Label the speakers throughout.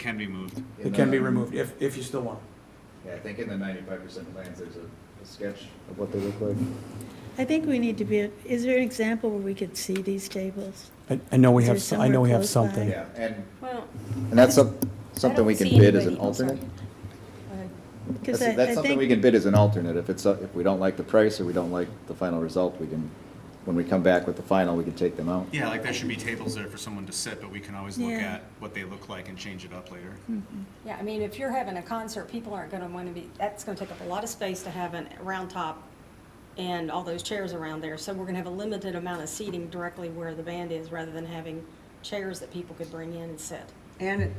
Speaker 1: can be moved.
Speaker 2: It can be removed if, if you still want it.
Speaker 3: Yeah, I think in the ninety-five percent plans, there's a, a sketch of what they look like.
Speaker 4: I think we need to be, is there an example where we could see these tables?
Speaker 2: I, I know we
Speaker 4: Is there
Speaker 2: have, s- I know we have
Speaker 4: somewhere close by?
Speaker 2: something.
Speaker 3: Yeah, and,
Speaker 5: Well,
Speaker 3: and that's some- something we
Speaker 5: don't
Speaker 3: can
Speaker 5: see
Speaker 3: bid as an
Speaker 5: anybody- oh, sorry.
Speaker 3: alternate?
Speaker 5: Go ahead.
Speaker 4: Because
Speaker 3: That's, that's something we can bid as an alternate, if it's, uh, if we don't like the price or we don't like the final result, we can, when we come back with the final, we can take them out.
Speaker 1: Yeah, like there should be tables there for someone to sit, but we can always look
Speaker 4: Yeah.
Speaker 1: at what they look like and change it up later.
Speaker 5: Yeah, I mean, if you're having a concert, people aren't gonna wanna be, that's gonna take up a lot of space to have a round top and all those chairs around there, so we're gonna have a limited amount of seating directly where the band is, rather than having chairs that people could bring in and sit.
Speaker 6: And it,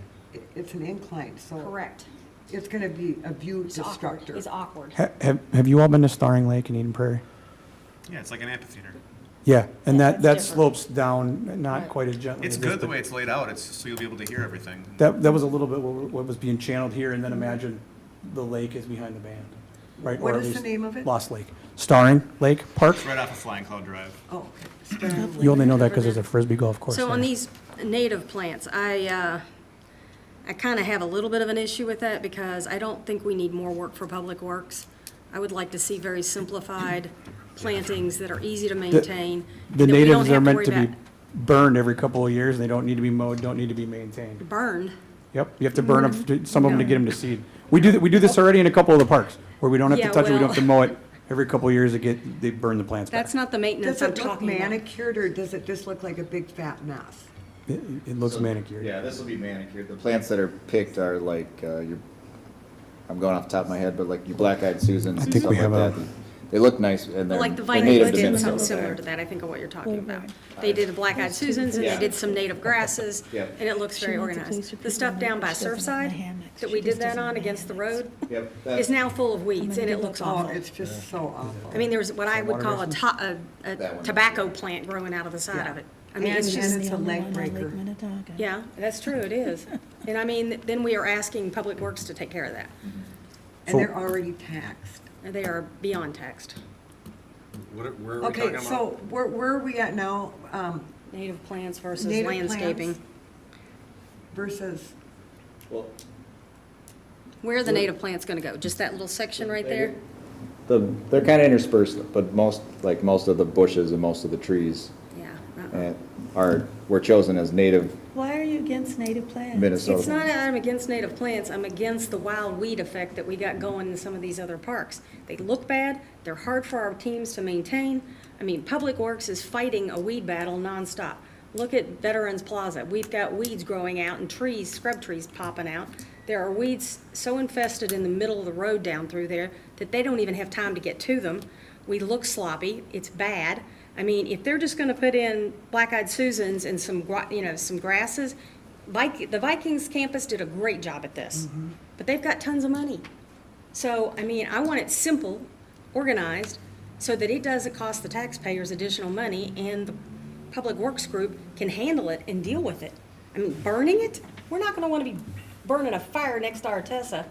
Speaker 6: it's an incline, so.
Speaker 5: Correct.
Speaker 6: It's gonna be a view
Speaker 5: It's awkward,
Speaker 6: destructor.
Speaker 5: it's awkward.
Speaker 2: Ha- Have, have you all been to Starring Lake in Eden Prairie?
Speaker 1: Yeah, it's like an amphitheater.
Speaker 2: Yeah, and
Speaker 5: Yeah,
Speaker 2: that,
Speaker 5: that's
Speaker 2: that
Speaker 5: different.
Speaker 2: slopes down, not quite as gently.
Speaker 1: It's
Speaker 2: as this,
Speaker 1: good the
Speaker 2: but
Speaker 1: way it's laid out, it's, so you'll be able to hear everything.
Speaker 2: That, that was a little bit what what was being channeled here, and then imagine the lake is behind the band, right?
Speaker 6: What
Speaker 2: or at
Speaker 6: is the
Speaker 2: least
Speaker 6: name of it?
Speaker 2: Lost Lake. Starring Lake Park.
Speaker 1: It's right off of Flying Cloud Drive.
Speaker 6: Oh, stern
Speaker 2: You only know that
Speaker 5: Over
Speaker 2: because there's a
Speaker 5: there.
Speaker 2: frisbee golf course
Speaker 5: So on
Speaker 2: there.
Speaker 5: these native plants, I, uh, I kind of have a little bit of an issue with that because I don't think we need more work for Public Works. I would like to see very simplified plantings that are easy to maintain.
Speaker 2: The
Speaker 5: that we don't
Speaker 2: natives are
Speaker 5: have
Speaker 2: meant
Speaker 5: worry
Speaker 2: to be
Speaker 5: about
Speaker 2: burned every couple of years, and they don't need to be mowed, don't need to be maintained.
Speaker 5: Burned.
Speaker 2: Yep, you have to burn
Speaker 5: Mm-hmm.
Speaker 2: them, some of them to get them to seed. We do, th- we do this already in a couple of the parks, where we don't have to
Speaker 5: Yeah,
Speaker 2: touch it, we don't
Speaker 5: well-
Speaker 2: have to mow it. Every couple of years, they get, they burn the plants back.
Speaker 5: That's not the maintenance
Speaker 6: Does
Speaker 5: I'm
Speaker 6: it look
Speaker 5: talking about.
Speaker 6: manicured or does it just look like a big fat mess?
Speaker 2: It it looks manicured.
Speaker 3: Yeah, this will be manicured. The plants that are picked are like, uh, your, I'm going off the top of my head, but like your black-eyed Susans and
Speaker 2: think
Speaker 3: stuff
Speaker 2: we
Speaker 3: like
Speaker 2: have
Speaker 3: that.
Speaker 2: a-
Speaker 3: They look nice and they're
Speaker 5: Like the
Speaker 3: they're
Speaker 5: Vikings
Speaker 3: native to
Speaker 5: did something
Speaker 3: Minnesota.
Speaker 5: similar to that, I think of what you're talking about.
Speaker 4: Over.
Speaker 5: They did the black-eyed Susans and they
Speaker 3: Yeah.
Speaker 5: did some native grasses
Speaker 3: Yeah.
Speaker 5: and it looks very
Speaker 4: She wants a place for
Speaker 5: organized. The
Speaker 4: people
Speaker 5: stuff
Speaker 4: to
Speaker 5: down by
Speaker 4: relax. She doesn't want the
Speaker 5: Surfside
Speaker 4: hammocks.
Speaker 5: that
Speaker 4: She
Speaker 5: we did
Speaker 4: just
Speaker 5: that
Speaker 4: doesn't
Speaker 5: on
Speaker 4: want the
Speaker 5: against the
Speaker 4: hammocks.
Speaker 5: road
Speaker 3: Yep,
Speaker 5: is
Speaker 3: that,
Speaker 5: now full of weeds and it looks
Speaker 6: Oh,
Speaker 5: awful.
Speaker 6: it's just so awful.
Speaker 5: I mean, there was what I would call a to, a,
Speaker 3: That
Speaker 5: a
Speaker 3: one.
Speaker 5: tobacco plant growing out of the side of it. I mean, it's
Speaker 6: And-
Speaker 5: just,
Speaker 6: and it's a leg breaker.
Speaker 5: yeah, that's true, it is. And I mean, then we are asking Public Works to take care of that.
Speaker 6: And they're already taxed.
Speaker 5: And They are beyond taxed.
Speaker 1: What, are- where are we talking
Speaker 6: Okay, so
Speaker 1: about?
Speaker 6: where, where are we at now, um,
Speaker 5: Native plants versus
Speaker 6: Native
Speaker 5: landscaping.
Speaker 6: plants. versus,
Speaker 3: well,
Speaker 5: Where are the native plants gonna go? Just that little section right there?
Speaker 3: the, they're kind of interspersed, but most, like most of the bushes and most of the trees
Speaker 5: Yeah. uh-uh.
Speaker 3: uh, are, were chosen as native
Speaker 4: Why are you against native plants?
Speaker 3: Minnesota.
Speaker 5: It's not that I'm against native plants, I'm against the wild weed effect that we got going in some of these other parks. They look bad, they're hard for our teams to maintain. I mean, Public Works is fighting a weed battle nonstop. Look at Veterans Plaza, we've got weeds growing out and trees, scrub trees popping out. There are weeds so infested in the middle of the road down through there that they don't even have time to get to them. We look sloppy, it's bad. I mean, if they're just gonna put in black-eyed Susans and some, gra- you know, some grasses, Vik the Vikings campus did a great job at this, but they've got tons of money. So, I mean, I want it simple, organized, so that it doesn't cost the taxpayers additional money and the public works group can handle it and deal with it. I mean, burning it, we're not gonna wanna be burning a fire next to our Tessa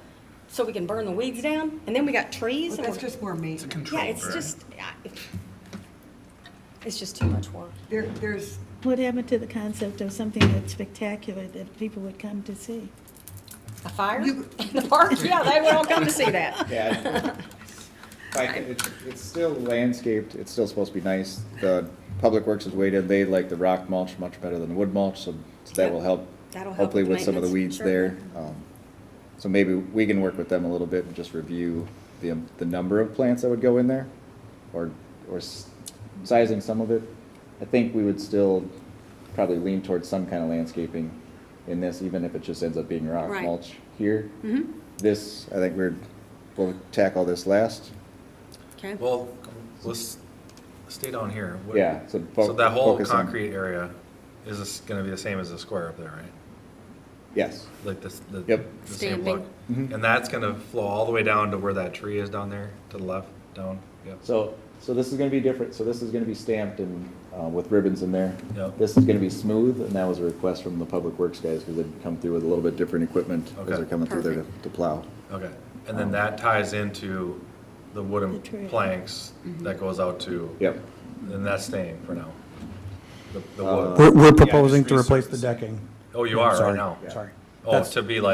Speaker 5: so we can burn the weeds down, and then we got trees
Speaker 6: well,
Speaker 5: and
Speaker 6: that's
Speaker 5: we're,
Speaker 6: just more maintenance.
Speaker 5: yeah, it's just, I- it's just too much work.
Speaker 6: There, there's,
Speaker 4: What happened to the concept of something that's spectacular that people would come to see?
Speaker 5: A fire in the park, yeah, they would all come to see that.
Speaker 3: Yeah. Like, it's, it's still landscaped, it's still supposed to be nice. The Public Works has waited, they like the rock mulch much better than the wood mulch, so so that will help.
Speaker 5: That'll help
Speaker 3: Hopefully
Speaker 5: with
Speaker 3: with some of the weeds
Speaker 5: maintenance, sure. Mm-hmm.
Speaker 3: there. Um, So maybe we can work with them a little bit and just review the, um, the number of plants that would go in there or, or s- sizing some of it. I think we would still probably lean towards some kind of landscaping in this, even if it just ends up being rock
Speaker 5: Right.
Speaker 3: mulch here. This, I think we're, we'll tackle this last.
Speaker 5: Okay.
Speaker 7: Well, let's stay down here. What-
Speaker 3: Yeah, so fo-
Speaker 7: So that whole
Speaker 3: focus on-
Speaker 7: concrete area is this gonna be the same as the square up there, right?
Speaker 3: Yes.
Speaker 7: Like this, the.
Speaker 3: Yep.
Speaker 7: the same look.
Speaker 3: Stamping. Mhm.
Speaker 7: And that's gonna flow all the way down to where that tree is down there, to the left, down, yep.
Speaker 3: So, so this is gonna be different, so this is gonna be stamped and, uh, with ribbons in there.
Speaker 7: Yep.
Speaker 3: This is gonna be smooth, and that was a request from the Public Works guys, because they'd come through with a little bit different equipment
Speaker 7: Okay.
Speaker 3: as they're coming through there to
Speaker 5: Perfect.
Speaker 3: to plow.
Speaker 7: Okay, and
Speaker 3: Um,
Speaker 7: then that ties into the wooden
Speaker 4: The trail.
Speaker 7: planks that goes out to.
Speaker 3: Yep.
Speaker 7: And that's staying for now. The, the
Speaker 3: Uh,
Speaker 7: wood.
Speaker 2: We're, we're proposing to
Speaker 1: resurfacing.
Speaker 2: replace the decking.
Speaker 7: Oh, you are right
Speaker 2: Sorry,
Speaker 7: now?
Speaker 2: Sorry.
Speaker 7: Oh,
Speaker 2: That's-
Speaker 7: to be like.